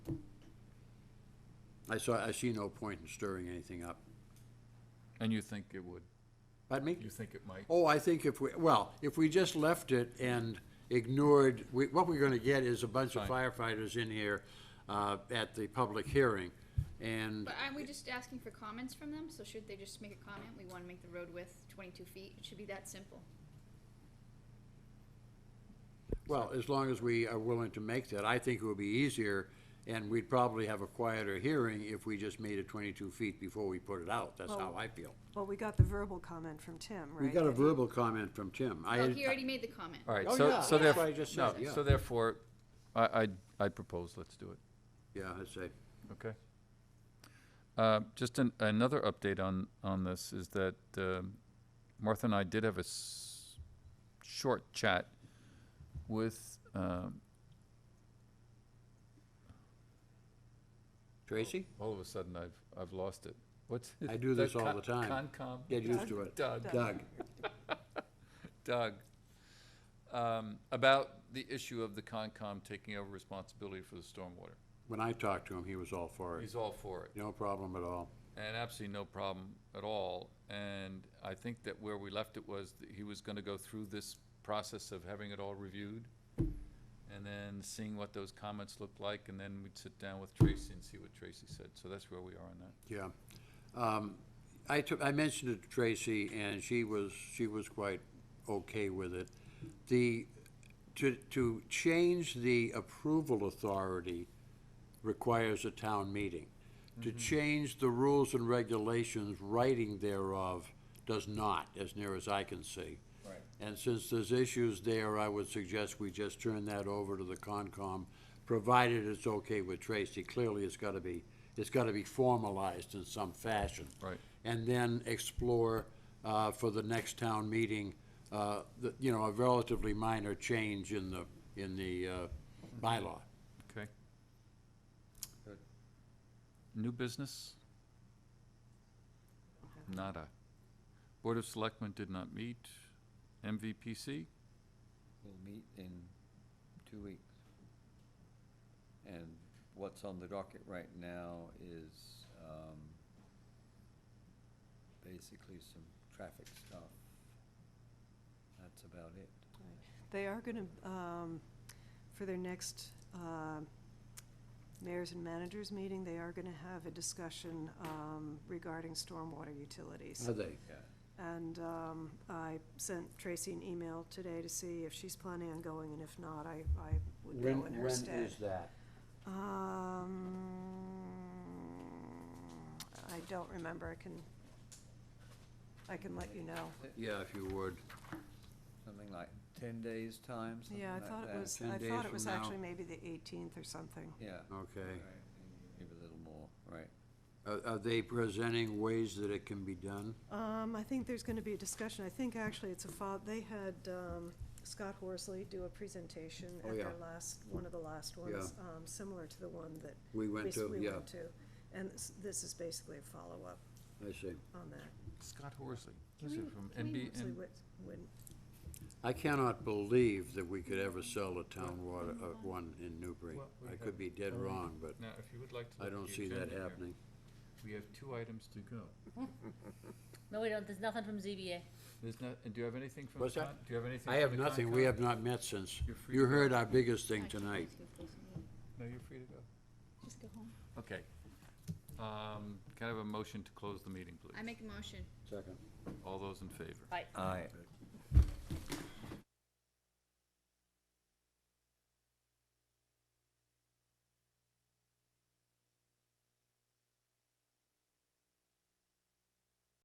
I saw, I see no point in stirring anything up. And you think it would, Pardon me? you think it might? Oh, I think if we, well, if we just left it and ignored, we, what we're gonna get is a bunch of firefighters in here, uh, at the public hearing, and, But aren't we just asking for comments from them? So should they just make a comment? We wanna make the road width twenty-two feet. It should be that simple. well, as long as we are willing to make that, I think it would be easier, and we'd probably have a quieter hearing if we just made it twenty-two feet before we put it out, that's how Well, I feel. Well, we got the verbal comment from Tim, right? We got a that he- verbal comment from Tim. I Oh, had- he already made the comment. All right, Oh, yeah, so, so that's what I therefore, just no, said, yeah. so therefore, I, I, I propose, let's do it, Yeah, I'd say, okay? Uh, just an, another update on, on this is that, um, Martha and I did have a s- short chat with, um, Tracy, all of a sudden I've, I've lost it. What's? I do this all the time. Concom. get used to it. Doug. Doug, Doug, um, about the issue of the Concom taking over responsibility for the stormwater. when I talked to him, he was all for it, He's all for it, no problem at all. and absolutely no problem at all. And I think that where we left it was that he was gonna go through this process of having it all reviewed, and then seeing what those comments looked like, and then we'd sit down with Tracy and see what Tracy said. So that's where we are on that. Yeah. Um, I took, I mentioned it to Tracy, and she was, she was quite okay with it. The, to, to change the approval authority requires a town meeting. Mm-hmm. To change the rules and regulations, writing thereof does not, as near as I can see. Right. And since there's issues there, I would suggest we just turn that over to the Concom, provided it's okay with Tracy. Clearly, it's gotta be, it's gotta be formalized in some fashion. Right. And then explore, uh, for the next town meeting, uh, the, you know, a relatively minor change in the, in the, uh, bylaw. Okay. New business? Nada. Board of Selectmen did not meet. MVPC? We'll meet in two weeks. And what's on the docket right now is, um, basically some traffic stuff. That's about it. They are gonna, um, for their next, um, mayors and managers meeting, they are gonna have a discussion, um, regarding stormwater utilities. Are they? Yeah. And, um, I sent Tracy an email today to see if she's planning on going, and if not, I, I would When, go when in her is stead. that? Um, I don't remember, I can, I can let you know. Yeah, if you would. Something like ten days' time, something Yeah, I like that. thought it was, 10 I days thought it from was now. actually maybe the eighteenth or something. Yeah. Okay. right, Maybe a little more, right. Are, are they presenting ways that it can be done? Um, I think there's gonna be a discussion, I think actually it's a fol, they had, um, Scott Horsley do a presentation Oh, at their yeah. last, one of the last ones, um, similar to the one that. We went s- to, we yeah. went to. And this, this is basically a follow-up I see. on that. Scott Horsley. Can we- can we- NB, Horsley went- went- I cannot believe that we could ever sell a town water, uh, one in Newbury. Well, we I could have- be dead wrong, but now, if you would like to. I don't see that happening. We have two items to go. No, we don't, there's nothing from ZBA. There's not, and do you have anything from the What's that? con, do you have anything? I from have the nothing, we Concom? have not met since. You're free You to go. heard our biggest thing Actually, tonight. let's go close the meeting. No, you're free to go. Just go home. Okay. Um, can I have a motion to close the meeting, please? I make a motion. Second. Uh, All those in favor? Right. I